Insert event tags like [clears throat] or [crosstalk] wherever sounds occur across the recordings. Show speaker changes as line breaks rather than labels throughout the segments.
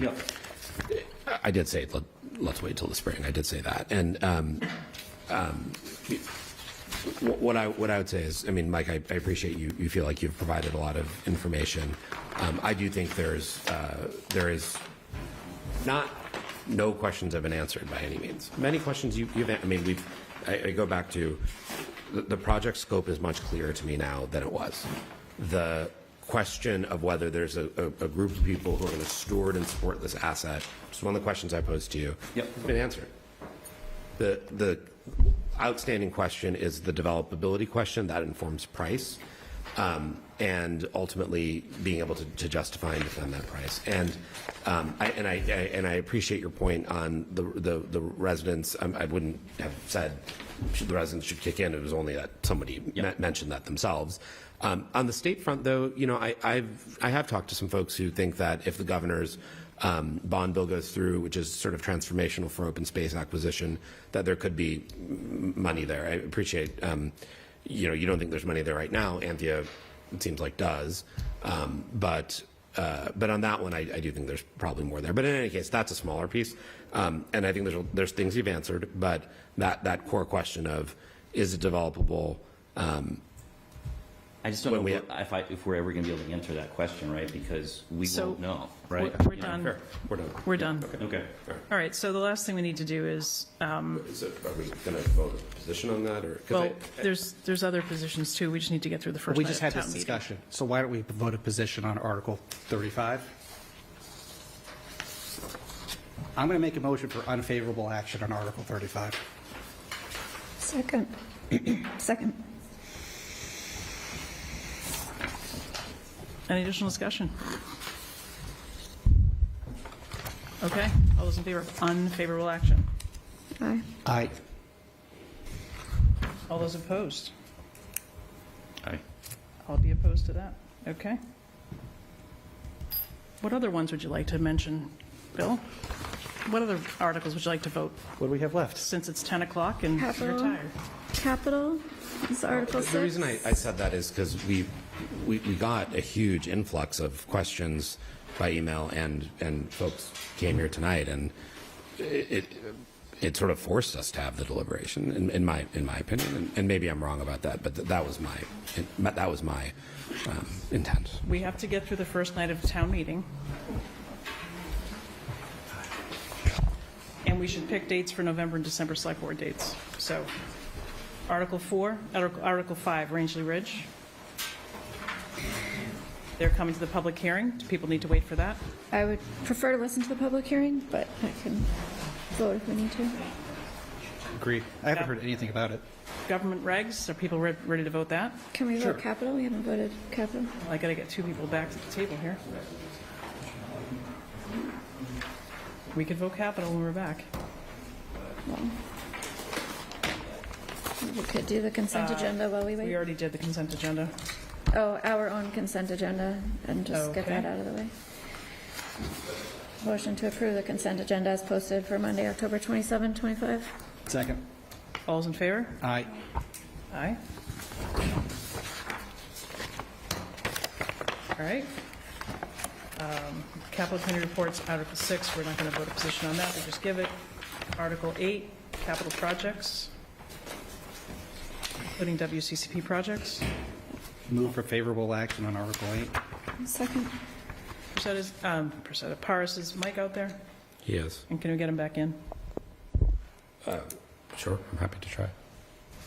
Yeah.
I did say, let, let's wait till the spring. I did say that. And um, um, wh- what I, what I would say is, I mean, Mike, I I appreciate you, you feel like you've provided a lot of information. Um, I do think there's, uh, there is not, no questions have been answered by any means. Many questions you, you've, an- I mean, we've, I, I go back to, the, the project scope is much clearer to me now than it was. The question of whether there's a, a, a group of people who are going to steward and support this asset, it's one of the questions I posed to you.
Yep.
It's been answered. The, the outstanding question is the developability question, that informs price, um, and ultimately being able to to justify and defend that price. And um, I, and I, I- and I appreciate your point on the, the the residents, Um, I wouldn't have said should the residents should kick in, it was only that somebody me- mentioned that themselves. Um, On the state front, though, you know, I, I've, I have talked to some folks who think that if the governor's um, bond bill goes through, which is sort of transformational for open space acquisition, that there could be m- money there. I appreciate, um, you know, you don't think there's money there right now. Anthea, it seems like, does. Um, but, uh, but on that one, I, I do think there's probably more there. But in any case, that's a smaller piece. Um, and I think there's, there's things you've answered, but that, that core question of is it developable? Um,
I just don't
When
know
we-
what- if I, if we're ever going to be able to answer that question, right? Because we
So-
won't know,
We're
right?
we're
Yeah.
done.
fair. We're done.
We're done.
Okay.
All right, so the last thing we need to do is, uh,
Is it, are we going to vote a position on that, or? 'cause
well,
I-
there's, there's other positions too. We just need to get through the first
We just
night of
had
town
this
meeting.
discussion, so why don't we vote a position on Article 35? I'm going to make a motion for unfavorable action on Article 35.
Second. [clears throat] Second.
Any additional discussion? Okay, all those in favor of unfavorable action?
Aye.
Aye.
All those opposed?
Aye.
I'll be opposed to that. Okay. What other ones would you like to mention, Bill? What other articles would you like to vote,
What do we have left?
since it's 10 o'clock and you're
Capital.
tired?
Capital is Article
The reason I,
6.
I said that is because we, we, we got a huge influx of questions by email and, and folks came here tonight and it, it- it sort of forced us to have the deliberation in, in my, in my opinion. And, and maybe I'm wrong about that, but th- that was my, that was my, um, intent.
We have to get through the first night of town meeting. And we should pick dates for November and December select board dates. So Article 4, Artic- Article 5, Rangeley Ridge. They're coming to the public hearing. Do people need to wait for that?
I would prefer to listen to the public hearing, but I can vote if we need to.
Agreed. I haven't heard anything about it.
Government regs, are people re- ready to vote that?
Can we vote capital? We haven't voted capital.
I gotta get two people back to the table here. We could vote capital when we're back.
We could do the consent agenda while Uh, we
We
wait.
already did the consent agenda.
Oh, our own consent agenda, and just get
Okay.
that out of the way. Motion to approve the consent agenda as posted for Monday, October 27, 25.
Second.
All's in favor?
Aye.
Aye. All right. Um, Capital Committee reports, Article 6, we're not going to vote a position on that, we just give it. Article 8, capital projects, including WCCP projects.
Move for favorable action on Article 8.
Second.
Preseta's, um, Preseta, Paris, is Mike out there?
Yes.
And can we get him back in?
Sure, I'm happy to try.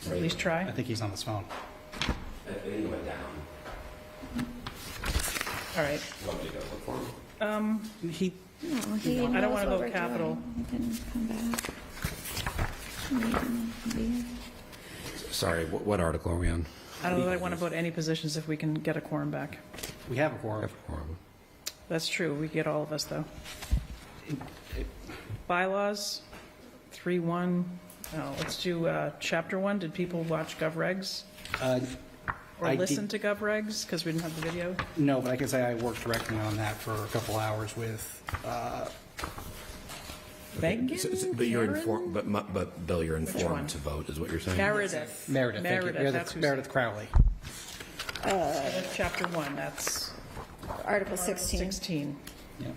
Or at least try?
I think he's on his phone.
All right.
He,
No, Oh, he
I don't
knows
wanna
what
vote
we're
capital.
doing. He can come back. He can be here.
Sorry, what, what article are we
Um,
on?
I don't know that I want to vote any positions if we can get a quorum back.
we have a quorum.
That's true, we get all of us, though. Bylaws, 3-1, no, let's do uh, Chapter 1, did people watch GovRegs?
Uh, I
Or
did-
listen to GovRegs, because we didn't have the video?
No, but I can say I worked directly on that for a couple hours with, uh,
Megan?
So- so- But you're
Karen?
informed, but, mu- but Bill, you're
one?
informed to vote, is what you're saying?
Meredith.
Meredith. thank you.
Meredith, that's who,
Meredith Crowley.
Chapter 1, that's
Article 16.
16.
Yeah.